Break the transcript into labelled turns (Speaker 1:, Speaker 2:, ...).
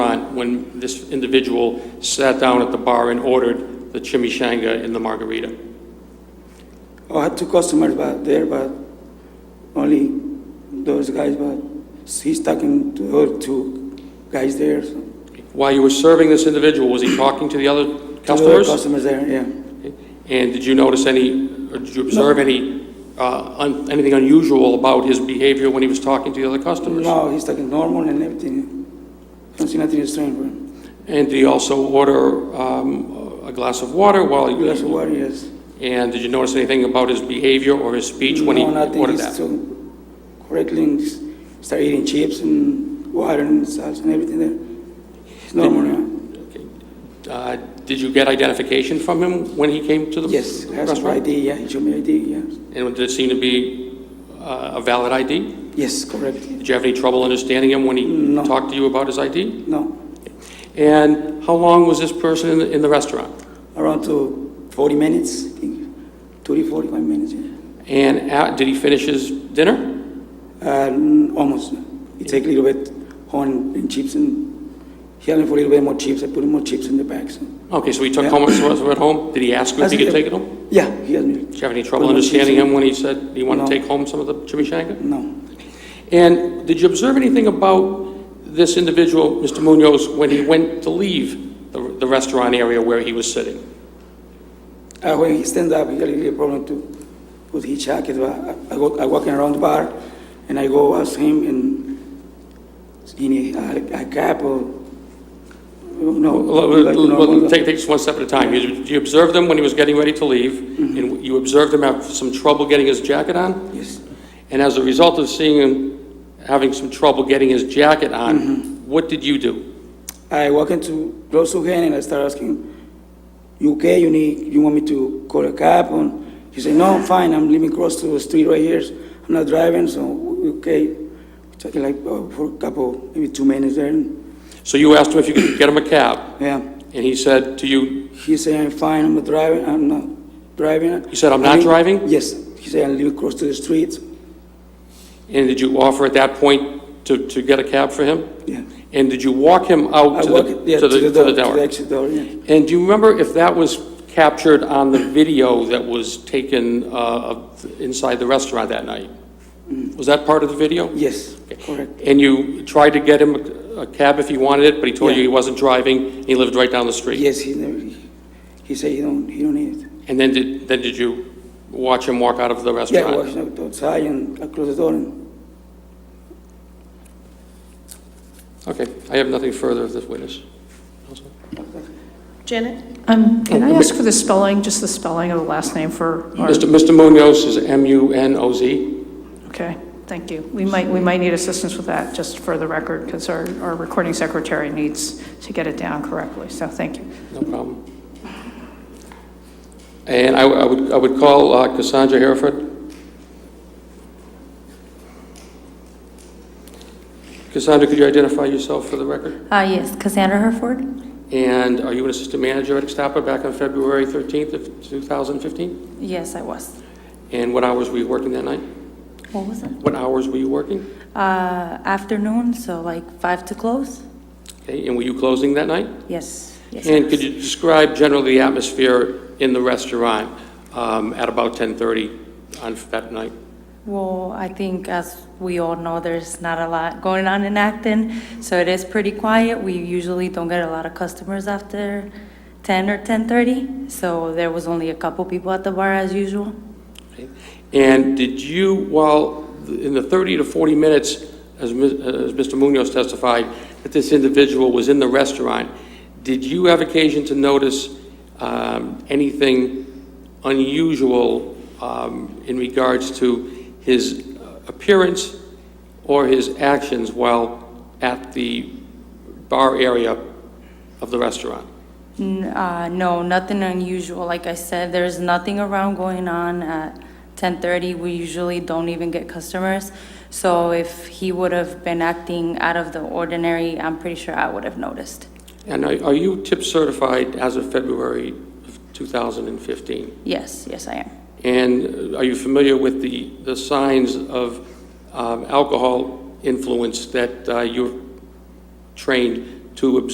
Speaker 1: when this individual sat down at the bar and ordered the chimichanga and the margarita.
Speaker 2: Oh, I had two customers but there, but only those guys. But he's talking to the other two guys there. So.
Speaker 1: While you were serving this individual, was he talking to the other
Speaker 2: To the other
Speaker 1: customers?
Speaker 2: customers there, yeah.
Speaker 1: And did you notice any, or did you observe any, uh, un- anything unusual about his behavior when he was talking to the other customers?
Speaker 2: No, he's talking normal and everything. Don't see nothing strange. Bro.
Speaker 1: And did he also order um, a glass of water while he
Speaker 2: Glass
Speaker 1: was?
Speaker 2: of water, yes.
Speaker 1: And did you notice anything about his behavior or his speech when he
Speaker 2: no, nothing.
Speaker 1: ordered
Speaker 2: he's
Speaker 1: that?
Speaker 2: so correctly and s- start eating chips and water and salsa and everything there. It's normal. yeah.
Speaker 1: Okay. Uh, Did you get identification from him when he came to the
Speaker 2: Yes,
Speaker 1: restaurant?
Speaker 2: has ID. Yeah, he showed me ID. Yeah.
Speaker 1: And did it seem to be uh, a valid ID?
Speaker 2: Yes, correct.
Speaker 1: Did you have any trouble understanding him when he
Speaker 2: No.
Speaker 1: talked to you about his ID?
Speaker 2: No,
Speaker 1: And how long was this person in the- in the restaurant?
Speaker 2: around to 40 minutes, I think, 30, 45 minutes. Yeah.
Speaker 1: And at- did he finish his dinner?
Speaker 2: And almost. He take a little bit on and chips and he asked me for a little bit more chips. I put more chips in the bags.
Speaker 1: Okay, so he took
Speaker 2: Yeah.
Speaker 1: home, so was at home? Did he ask you if he could take it home?
Speaker 2: Yeah, he asked me.
Speaker 1: Did you have any trouble
Speaker 2: Put more chips
Speaker 1: understanding
Speaker 2: in-
Speaker 1: him when he said he wanted
Speaker 2: No.
Speaker 1: to take home some of the chimichanga?
Speaker 2: No.
Speaker 1: And did you observe anything about this individual, Mr. Munoz, when he went to leave the the restaurant area where he was sitting?
Speaker 2: Uh, when he stand up, he had a little problem to put his jacket. But I, I, go, I walking around the bar and I go ask him and he need a, a cap or no.
Speaker 1: Well,
Speaker 2: like
Speaker 1: well,
Speaker 2: normal-
Speaker 1: well, Take take just one step at a time. You you observed him when he was getting ready to leave,
Speaker 2: Mm-hmm.
Speaker 1: and you observed him have some trouble getting his jacket on?
Speaker 2: yes.
Speaker 1: And as a result of seeing him having some trouble getting his jacket
Speaker 2: Mm-hmm.
Speaker 1: on, what did you do?
Speaker 2: I walk into close to him and I start asking, "You okay? You need? You want me to call a cab?" And he said, "No, I'm fine. I'm living cross to the street right here. I'm not driving, so we okay." We talking like oh, for a couple, maybe two minutes there. And,
Speaker 1: So you asked him if you could get him a cab,
Speaker 2: yeah,
Speaker 1: and he said to you,
Speaker 2: he said, "I'm fine. I'm not driving. I'm not driving."
Speaker 1: You said, "I'm not
Speaker 2: live-
Speaker 1: driving?"
Speaker 2: Yes. He said, "I'm living cross to the street."
Speaker 1: and did you offer at that point to, to get a cab for him?
Speaker 2: Yeah.
Speaker 1: And did you walk him out
Speaker 2: I
Speaker 1: to
Speaker 2: walk yeah,
Speaker 1: the, to the, to
Speaker 2: door,
Speaker 1: the
Speaker 2: to the
Speaker 1: door?
Speaker 2: exit door. Yeah.
Speaker 1: And do you remember if that was captured on the video that was taken, uh, of- inside the restaurant that night?
Speaker 2: Mm.
Speaker 1: Was that part of the video?
Speaker 2: Yes. Correct.
Speaker 1: And you tried to get him a- a cab if he wanted it, but he told
Speaker 2: Yeah.
Speaker 1: you he wasn't driving, and he lived right down the street?
Speaker 2: Yes. He never. He, he said, "He don't. He don't need it."
Speaker 1: And then did, then did you watch him walk out of the
Speaker 2: Yeah, I
Speaker 1: restaurant?
Speaker 2: was outside and I closed the door and
Speaker 1: Okay, I have nothing further of this witness.
Speaker 3: Janet?
Speaker 4: Um, Can I ask for the spelling, just the spelling of the last name for, our-
Speaker 1: Mr. Mr. Munoz is M-U-N-O-Z.
Speaker 4: okay, thank you. We might, we might need assistance with that, just for the record, because our, our recording secretary needs to get it down correctly, so thank you.
Speaker 1: No problem. And I I would, I would call uh, Cassandra Hereford. Cassandra, could you identify yourself for the record?
Speaker 5: Uh, yes, Cassandra Herford?
Speaker 1: And are you an assistant manager at Estapa back on February 13th of 2015?
Speaker 5: Yes, I was.
Speaker 1: And what hours were you working that night?
Speaker 5: What was it?
Speaker 1: What hours were you working?
Speaker 5: Uh, afternoon, so like five to close?
Speaker 1: Okay, and were you closing that night?
Speaker 5: Yes, yes. I
Speaker 1: And
Speaker 5: was.
Speaker 1: could you describe generally the atmosphere in the restaurant um, at about 10:30 on that night?
Speaker 5: Well, I think as we all know, there's not a lot going on in Acton, so it is pretty quiet. We usually don't get a lot of customers after ten or ten-thirty, so there was only a couple people at the bar as usual.
Speaker 1: Okay. And did you, while, in the 30 to 40 minutes, as Ms- as Mr. Munoz testified, that this individual was in the restaurant, did you have occasion to notice um, anything unusual um, in regards to his appearance or his actions while at the bar area of the restaurant?
Speaker 5: N- uh, No, nothing unusual. Like I said, there's nothing around going on at 10:30. We usually don't even get customers. So if he would have been acting out of the ordinary, I'm pretty sure I would have noticed.
Speaker 1: And are are you tip certified as of February of 2015?
Speaker 5: Yes, yes, I am.
Speaker 1: And uh, are you familiar with the, the signs of um, alcohol influence that uh, you're trained to observe?